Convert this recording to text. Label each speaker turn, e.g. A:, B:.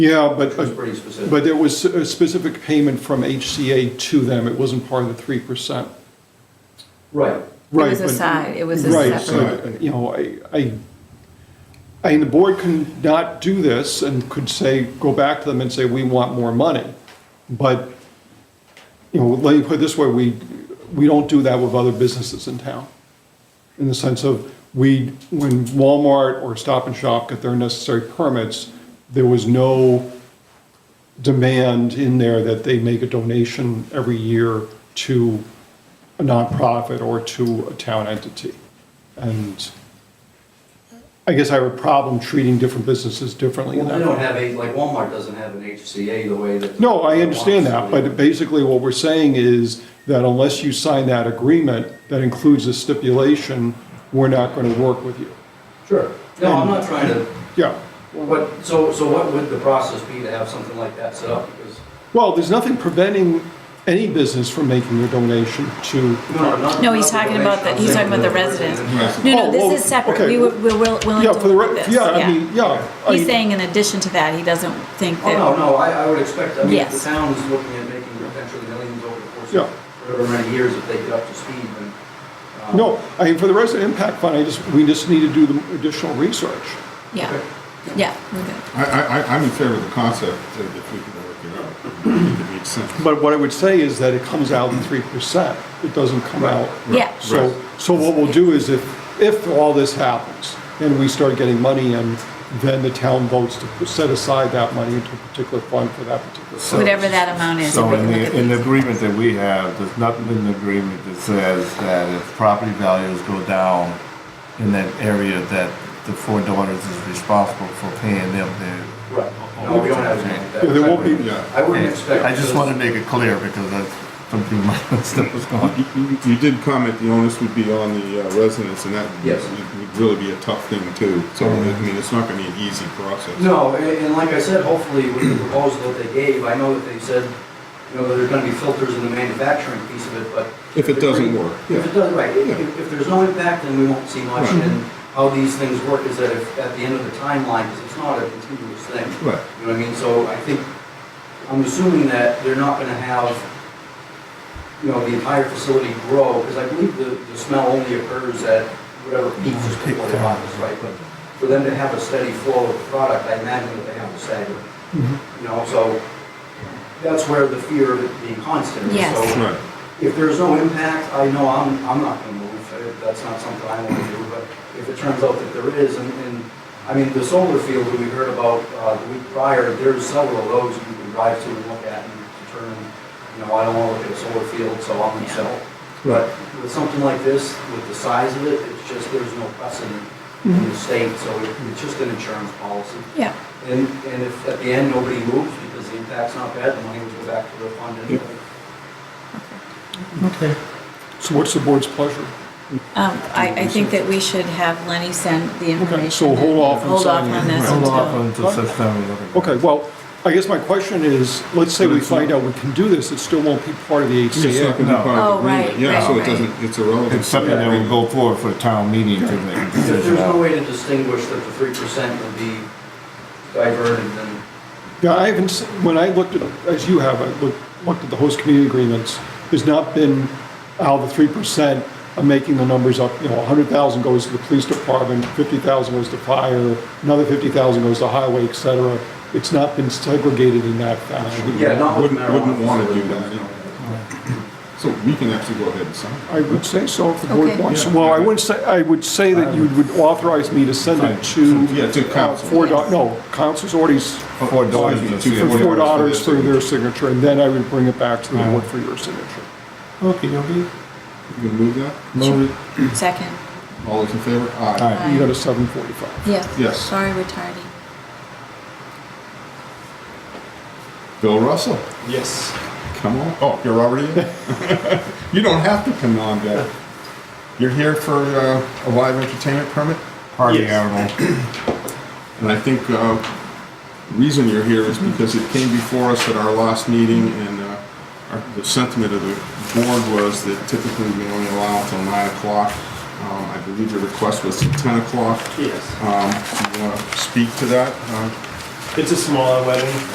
A: Yeah, but,
B: Which was pretty specific.
A: but there was a specific payment from HCA to them. It wasn't part of the 3%.
B: Right.
A: Right,
C: was a
A: but-
C: side- it was a
A: right, so,
C: separate-
A: You know, I, I, I mean, the board can not do this and could say, go back to them and say, we want more money. But, you know, let me put it this way, we, we don't do that with other businesses in town. In the sense of, we, when Walmart or Stop and Shop got their necessary permits, there was no demand in there that they make a donation every year to a nonprofit or to a town entity. And I guess I have a problem treating different businesses differently
B: Well,
A: in
B: they
A: that.
B: don't have a, like Walmart doesn't have an HCA the way that.
A: No, I understand that, but
B: Walmart's-
A: basically what we're saying is that unless you sign that agreement that includes a stipulation, we're not going to work with you.
B: Sure. No, I'm
A: Hmm.
B: not trying to,
A: Yeah.
B: but, so, so what would the process be to have something like that set up? Because,
A: Well, there's nothing preventing any business from making a donation to,
B: no, not.
C: No, he's talking about the- he's talking about the residents. No,
A: Oh,
C: no,
A: well,
C: this is separate.
A: okay.
C: We were, we're will- willing
A: yeah,
C: to
A: for the,
C: look
A: re-
C: at this.
A: yeah, I mean, yeah. I
C: He's
A: mean-
C: saying in addition to that, he doesn't think
B: Oh, no,
C: that,
B: no, I, I would expect, I mean, if the
C: Yes.
B: town is looking at making potentially millions over the course
A: Yeah.
B: of whatever many years, if they get up to speed, then. um,
A: No, I mean, for the rest of the impact fund, I just, we just need to do the additional research.
C: yeah,
B: okay.
C: yeah, we're good.
D: I, I, I- I'm in favor of the concept that if we can work it out, it makes sense.
A: But what I would say is that it comes out in three percent. It doesn't come out.
C: Yeah.
A: So, so what we'll do is if, if all this happens and we start getting money and then the town votes to set aside that money into a particular fund for that particular.
E: So-
C: Whatever that amount is.
E: So
C: we can
E: in
C: look at
E: the, in the
C: these.
E: agreement that we have, there's nothing in the agreement that says that if property values go down in that area, that the four daughters is responsible for paying them their.
B: Right. No, we don't have anything like that.
A: Yeah, there won't be-
D: Yeah,
B: I wouldn't expect.
E: I just
B: this-
E: want to make it clear because that's something my stuff was going.
D: You- you, you did comment the onus would be on the uh, residents, and that
B: Yes.
D: would would really be a tough thing too. So, I mean, it's not gonna be an easy process.
B: No, and, and like I said, hopefully with the proposal that they gave, I know that they said, you know, that there's gonna be filters in the manufacturing piece of it, but.
D: If it doesn't work,
B: If it
D: yeah.
B: does, right,
D: Yeah.
B: if, if there's no impact, then we won't see much,
D: Right.
B: and how these things work is that if, at the end of the timeline, because it's not a continuous thing.
D: Right.
B: You know what I mean, so I think, I'm assuming that they're not gonna have, you know, the entire facility grow, because I believe the, the smell only occurs at whatever peak is before the harvest, right? But for them to have a steady flow of product, I imagine that they have to stagger, you know, so that's where the fear of it being constant is.
C: Yes.
B: So
D: Right.
B: if there's no impact, I know I'm, I'm not gonna move, Uh, that's not something I wanna do, but if it turns out that there is, and, and, I mean, the solar field that we heard about, uh, the week prior, there's several of those you can drive to and look at and determine, you know, I don't wanna look at a solar field, so I'm gonna
C: Yeah.
B: sell.
D: Right.
B: But with something like this, with the size of it, it's just, there's no precedent in the state, so it- it's just an insurance policy.
C: Yeah,
B: And, and if at the end, nobody moves because the impact's not bad, the money would go back to the fund anyway.
E: Okay.
A: So what's the board's pleasure?
C: um, I, I think that we should have Lenny send the information.
A: so hold
C: and
A: off on
C: Hold off
A: signing
C: on
A: it.
C: this
E: Hold off
C: until,
E: until such time we look at it.
A: Okay, well, I guess my question is, let's say we find out we can do this, it still won't be part of the
D: It's not
A: HCA.
D: gonna be
E: No.
D: part of
C: Oh,
D: the agreement.
C: right,
D: Yeah, so
C: right,
D: it doesn't, it's irrelevant.
E: It's something that will go forward for a town meeting to make a
B: If there's
E: decision.
B: no
E: on.
B: way to distinguish that the three percent would be diverted, then,
A: Yeah, I haven't, se- when I looked at, as you have, I looked, looked at the host community agreements, there's not been how the three percent of making the numbers up, you know, a hundred thousand goes to the police department, fifty thousand goes to fire, another fifty thousand goes to highway, et cetera. It's not been segregated in that fashion.
B: yeah, not with
D: Wouldn't,
B: marijuana.
D: wouldn't wanna do that. So we can actually go ahead and sign.
A: I would say so if the board
C: Okay.
A: wants. Well, I wouldn't say, I would say that you would authorize me to send it to. Oh,
D: Yeah, to council.
A: uh, Four, dau- no, council's already s-
E: Four daughters.
D: Two
E: is
D: for
E: a-
A: for four
D: Four daughters
A: daughters
D: for
A: for
D: their
A: their signature, and then I would bring it back to the
E: Alright.
A: board for your signature.
E: Okay, okay.
D: You can move that?
E: Move it.
C: second,
D: All those in favor?
E: Aye.
A: You got a seven forty-five.
C: yeah,
D: Yes.
C: sorry we're tardy.
D: Bill Russell,
A: Yes.
D: come on. Oh, you're already in? You don't have to come on back. You're here for uh, a live entertainment permit?
E: Party
D: Yes.
E: animal.
D: And I think uh, the reason you're here is because it came before us at our last meeting, and uh, our- the sentiment of the board was that typically we only allow until 9 o'clock. Um, I believe your request was 10 o'clock.
B: Yes.
D: Um, You want to speak to that? Uh,
F: It's a smaller wedding.